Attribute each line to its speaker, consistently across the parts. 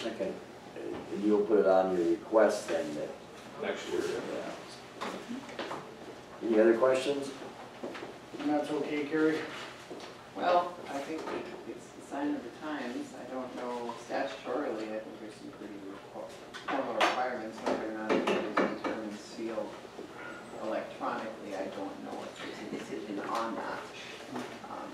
Speaker 1: second, and you'll put it on your request then that,
Speaker 2: next year.
Speaker 1: yeah. Any other questions?
Speaker 3: And that's okay, Carrie?
Speaker 4: Well, I think it's the sign of the times, I don't know statutorily, I think there's some pretty requ- formal requirements, whether or not it is determined sealed electronically, I don't know if there's a decision on that. Um,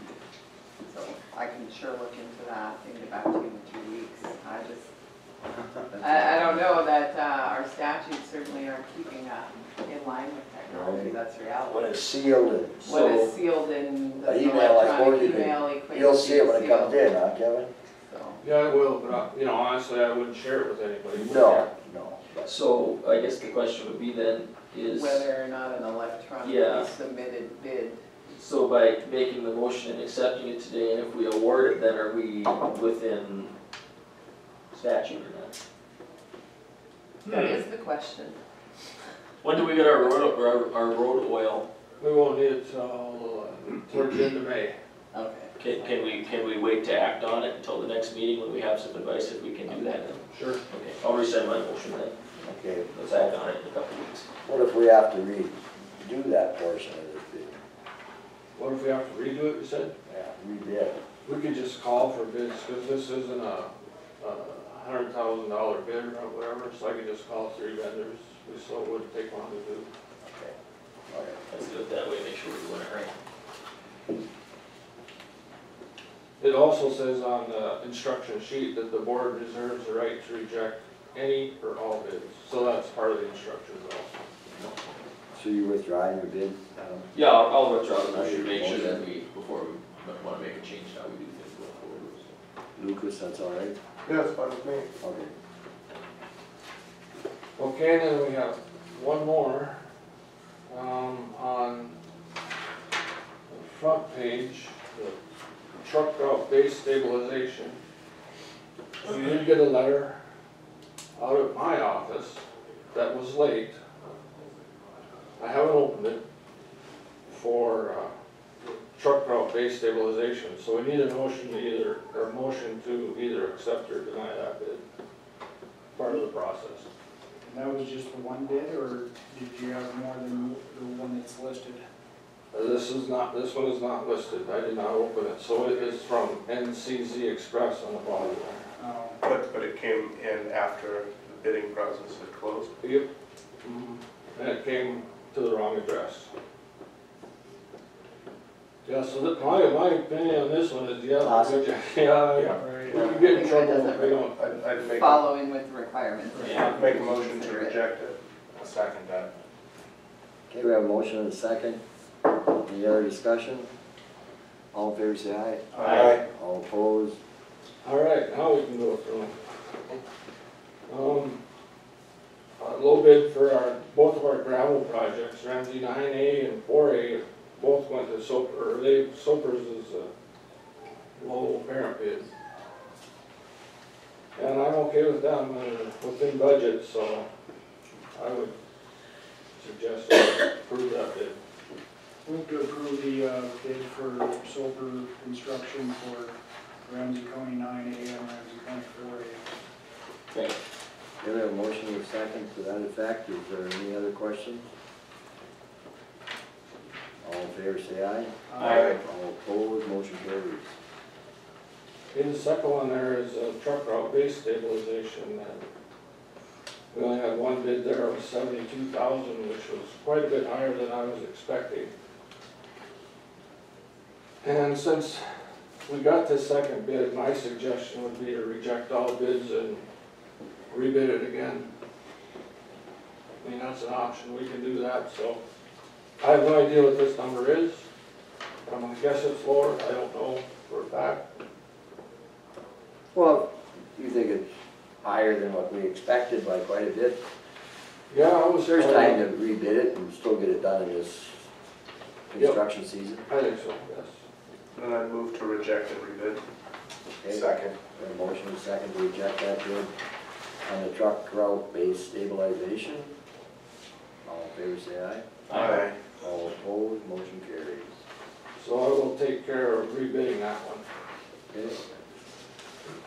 Speaker 4: So I can sure look into that, and get back to you in two weeks, I just, I, I don't know that, uh, our statutes certainly aren't keeping that in line with technology, that's reality.
Speaker 1: When it's sealed and
Speaker 4: What is
Speaker 1: so,
Speaker 4: sealed in the
Speaker 1: An email like
Speaker 4: electronic
Speaker 1: forwarded,
Speaker 4: email equates
Speaker 1: you'll see it when it
Speaker 4: to
Speaker 1: comes
Speaker 4: sealed,
Speaker 1: in, huh, Kevin?
Speaker 4: so.
Speaker 2: Yeah, I will, but, I- you know, honestly, I wouldn't share it with anybody.
Speaker 1: No, no. that's-
Speaker 5: So I guess the question would be then is,
Speaker 4: Whether or not an
Speaker 5: Yeah.
Speaker 4: electronically submitted bid,
Speaker 5: so by making the motion and accepting it today, and if we award it, then are we within statute or not?
Speaker 4: that
Speaker 6: Hmm.
Speaker 4: is the question.
Speaker 5: When do we get our road, our, our road oil?
Speaker 2: We won't need it till, uh, towards the end of May.
Speaker 4: Okay.
Speaker 5: Can, can we, can we wait to act on it until the next meeting when we have some advice if we can do that? then?
Speaker 2: Sure.
Speaker 5: Okay, I'll resend my motion then,
Speaker 1: Okay,
Speaker 5: let's act on it in a couple weeks.
Speaker 1: what if we have to redo that portion of this bid?
Speaker 2: What if we have to redo it, you said?
Speaker 1: Yeah, redid.
Speaker 2: We could just call for bids, because this isn't a, a hundred thousand dollar bid or whatever, so I could just call three vendors. We still wouldn't take long to do.
Speaker 1: Okay. All right.
Speaker 5: Let's do it that way, make sure we're doing it right.
Speaker 2: It also says on the instruction sheet that the board reserves the right to reject any or all bids, so that's part of the instructions also.
Speaker 1: So you withdraw your bid? um, Adam?
Speaker 5: Yeah, I'll, I'll withdraw the motion, make sure that we, before we wanna make a change, how we do things going forward. so.
Speaker 1: Lucas, that's all right?
Speaker 2: Yeah, that's fine with me.
Speaker 1: Okay.
Speaker 2: Okay, then we have one more, um, on the front page, the truck route base stabilization. We did get a letter out of my office that was late. I haven't opened it for, uh, truck route base stabilization, so we need a motion to either, or a motion to either accept or deny that bid. Part of the process.
Speaker 3: And that was just the one bid, or did you have more than the one that's listed?
Speaker 2: This is not, this one is not listed, I did not open it, so it is from NCZ Express on the bottom there.
Speaker 3: Um,
Speaker 6: But, but it came in after the bidding process had closed.
Speaker 2: Yep. Mm-hmm. And it came to the wrong address. Yeah, so that, my, my opinion on this one is, yeah,
Speaker 1: Awesome.
Speaker 2: good job. yeah, yeah. We
Speaker 3: Right.
Speaker 2: could get in
Speaker 4: Yeah.
Speaker 2: trouble if we don't.
Speaker 6: I'd, I'd make, a-
Speaker 4: Following with the requirements.
Speaker 5: Yeah.
Speaker 6: make a motion to reject it. second that.
Speaker 1: Okay, we have a motion and a second. Any other discussion? All in favor, say aye.
Speaker 5: Aye.
Speaker 1: All opposed?
Speaker 2: All right, now we can go through them. Um, a little bit for our, both of our gravel projects, Ramsey nine A and four A, both went to Soper, or they, Soper's is a low parent bid. And I'm okay with them, uh, within budget, so I would suggest we approve that bid.
Speaker 3: Move to approve the uh, bid for solar construction for Ramsey County nine A and Ramsey County four A.
Speaker 5: Okay.
Speaker 1: Okay, we have a motion and a second to that effect. Is there any other questions? All in favor, say aye.
Speaker 5: Aye.
Speaker 1: All opposed, motion carries.
Speaker 2: In the second one there is a truck route base stabilization and we only had one bid there of seventy-two thousand, which was quite a bit higher than I was expecting. And since we got this second bid, my suggestion would be to reject all bids and rebid it again. I mean, that's an option, we can do that, so I have no idea what this number is. I'm gonna guess it's lower, I don't know for a fact.
Speaker 1: Well, you think it's higher than what we expected by quite a bit.
Speaker 2: Yeah, I was
Speaker 1: There's time to rebid it and still get it done in this construction season.
Speaker 2: I think so, yes.
Speaker 6: Then I'd move to reject and rebid.
Speaker 1: Okay? We have a motion and a second to reject that bid on the truck route base stabilization. All in favor, say aye.
Speaker 5: Aye.
Speaker 1: All opposed, motion carries.
Speaker 2: So I will take care of rebidding that one.
Speaker 1: Okay,